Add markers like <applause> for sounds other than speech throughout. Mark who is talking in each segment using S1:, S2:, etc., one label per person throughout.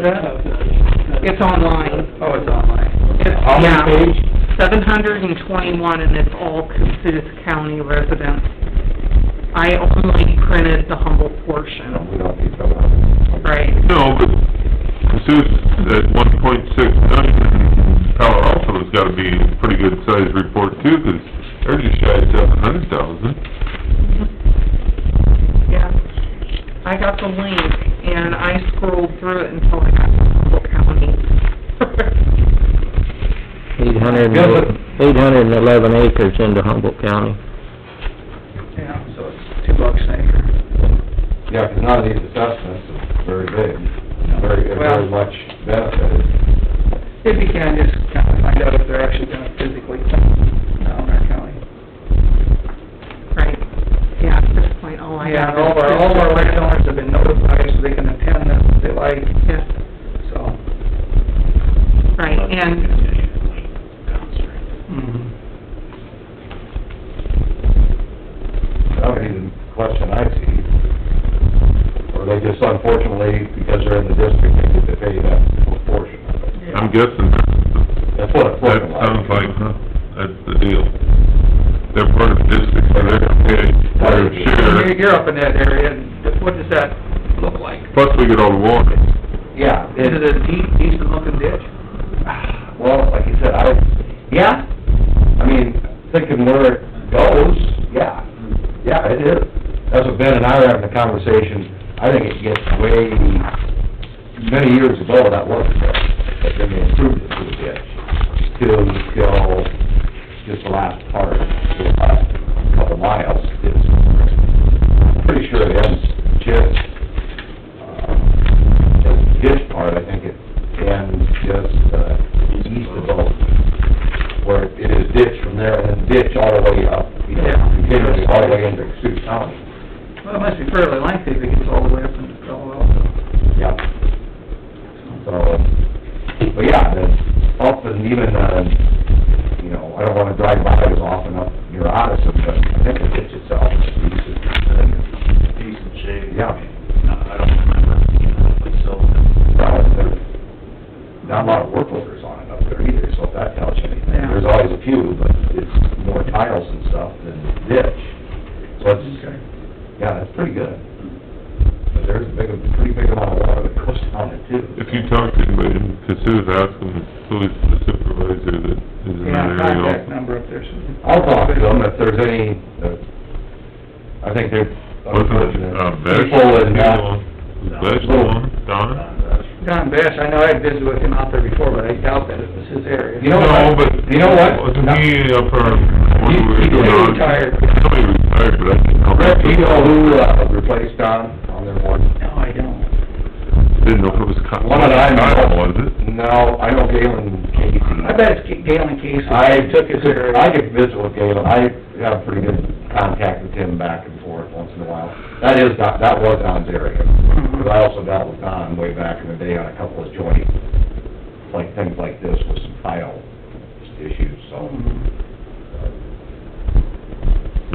S1: that?
S2: It's online.
S1: Oh, it's online. How
S2: Yeah.
S1: many page?
S2: Seven hundred and twenty-one, and it's all Cassuth County residents. I only printed the Humble
S1: No,
S2: portion,
S1: we don't need that.
S2: right?
S3: No, but Cassuth at one point six nine, and Palo Alto's gotta be a pretty good sized report too, 'cause they're just shy of seven hundred thousand.
S2: Yeah. I got the link, and I scrolled through it until I got to Humboldt County. <laughs>
S4: Eight hundred,
S1: Yeah, but-
S4: eight hundred and eleven acres into Humboldt County.
S1: Yeah, so it's-
S5: two bucks an acre.
S1: yeah, 'cause none of these assessments is very big, very, very
S5: Well-
S1: much benefited.
S5: If you can, just kind of find out if they're actually gonna physically dump down our county.
S2: Right, yeah, at this point, all I
S5: Oh, Yeah,
S2: have
S5: and all of our, all of our landowners have been notified, so they can attend them if they like,
S2: Yes,
S5: so.
S2: right, and,
S5: Mm-hmm.
S1: That would be the question I see. Or they just unfortunately, because they're in the district, they get to pay that portion of it.
S3: I'm guessing that's,
S1: That's what it's
S3: that
S1: looking like.
S3: sounds like, huh, that's the deal. They're part of the district, so they're gonna pay their
S5: You're,
S3: share,
S5: you're up in that area, and what does that look like?
S3: plus we get all the water.
S1: Yeah,
S5: Is it
S1: it,
S5: a deep, decent looking ditch?
S1: well, like you said, I, yeah, I mean, thinking where it goes, yeah, yeah, it is. That's what Ben and I were having a conversation, I think it gets way, many years ago, that was the ditch, but then they improved it to a ditch. Till, till, just the last part, the last couple miles is, pretty sure it ends just, uh, the ditch part, I think it ends just, uh, east of both. Where it is ditch from there, and then ditch all the way up, you know,
S5: Yeah.
S1: continues all the way into Sioux County.
S5: Well, it must be fairly lengthy if it gets all the way up into Colorado.
S1: Yep. So, but yeah, the up and even, uh, you know, I don't wanna drive by it as often up near Odison, but I think it hits itself.
S6: decent shape.
S1: Yeah.
S6: I don't remember, you know, myself,
S1: Probably there's Not a lot of work orders on it up there either, so if that tells you anything,
S5: Yeah.
S1: there's always a few, but it's more tiles and stuff than ditch. So it's, yeah, that's pretty good. But there's a big, pretty big amount of water that goes down it too.
S3: If you talk to anybody in Cassuth, ask them who is the supervisor that is in
S5: Yeah,
S3: that area
S5: contact
S3: also.
S5: number up there. so-
S1: I'll talk to them if there's any, uh, I think they're.
S3: Wasn't it, uh, Besh?
S1: People in, uh,
S3: Besh the one, Donna?
S6: but,
S5: Don Bash, I know I visited with him out there before, but I doubt that it was his area.
S1: You know
S3: No,
S1: what?
S3: but.
S1: You know what?
S3: Wasn't he up on, when we were
S1: He- he
S3: doing...
S5: retired.
S3: No, he retired, but I didn't know.
S1: Rick, do you know who, uh, replaced Don on their board?
S5: No, I don't.
S3: Didn't know if it was Kyle,
S1: One that I know.
S3: Kyle, was it?
S1: No, I know Galen Casey.
S5: I bet it's Ga- Galen Casey.
S1: I
S5: Took his area.
S1: I could visit with Galen, I have pretty good contact with him back and forth once in a while. That is, Don- that was Don's area, because I also dealt with Don way back in the day on a couple of joint, like, things like this with some tile issues, so.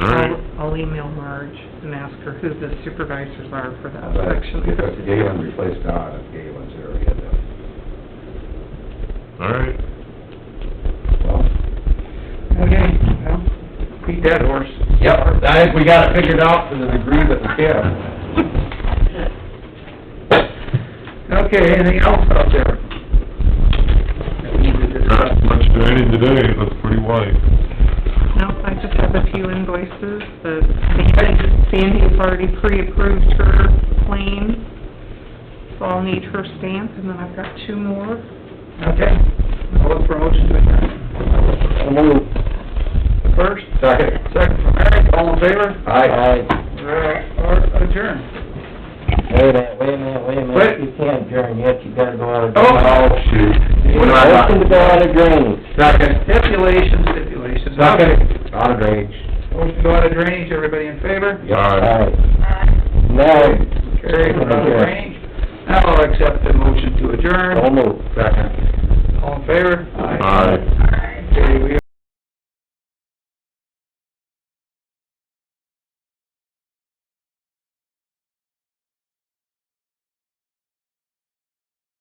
S1: Mm-hmm.
S3: All right.
S2: I'll, I'll email Marge and ask her who the supervisors are for that
S1: But
S2: section.
S1: If it's Galen replaced Don, it's Galen's area, then,
S3: All right.
S1: well.
S5: Okay, well, beat that horse.
S1: Yep, I think we got it figured out to the degree that we can.
S5: Okay, anything else out there? That we need to discuss?
S3: Not much training today, it looks pretty white.
S2: No, I just have a few invoices, but Sandy- Sandy has already pre-approved her claim, so I'll need her stamp, and then I've got two more.
S5: Okay, I'll look for a motion to adjourn. First?
S1: Second.
S5: Second from Eric, all in favor?
S1: Aye.
S5: We're, we're adjourned.
S4: Wait a minute, wait a minute, wait a
S5: Wait.
S4: minute, you can't adjourn yet, you gotta go out of.
S1: Oh, shoot. What am I on?
S4: Motion to go out of drainage.
S1: Second.
S5: Stipulations, stipulations.
S1: Second. Out of range.
S5: Motion to go out of drainage, everybody in favor?
S3: Aye.
S4: Alright. Now,
S5: Carried, we're out of drainage. Now I'll accept the motion to adjourn,
S4: almost.
S1: Second.
S5: all in favor?
S3: Aye.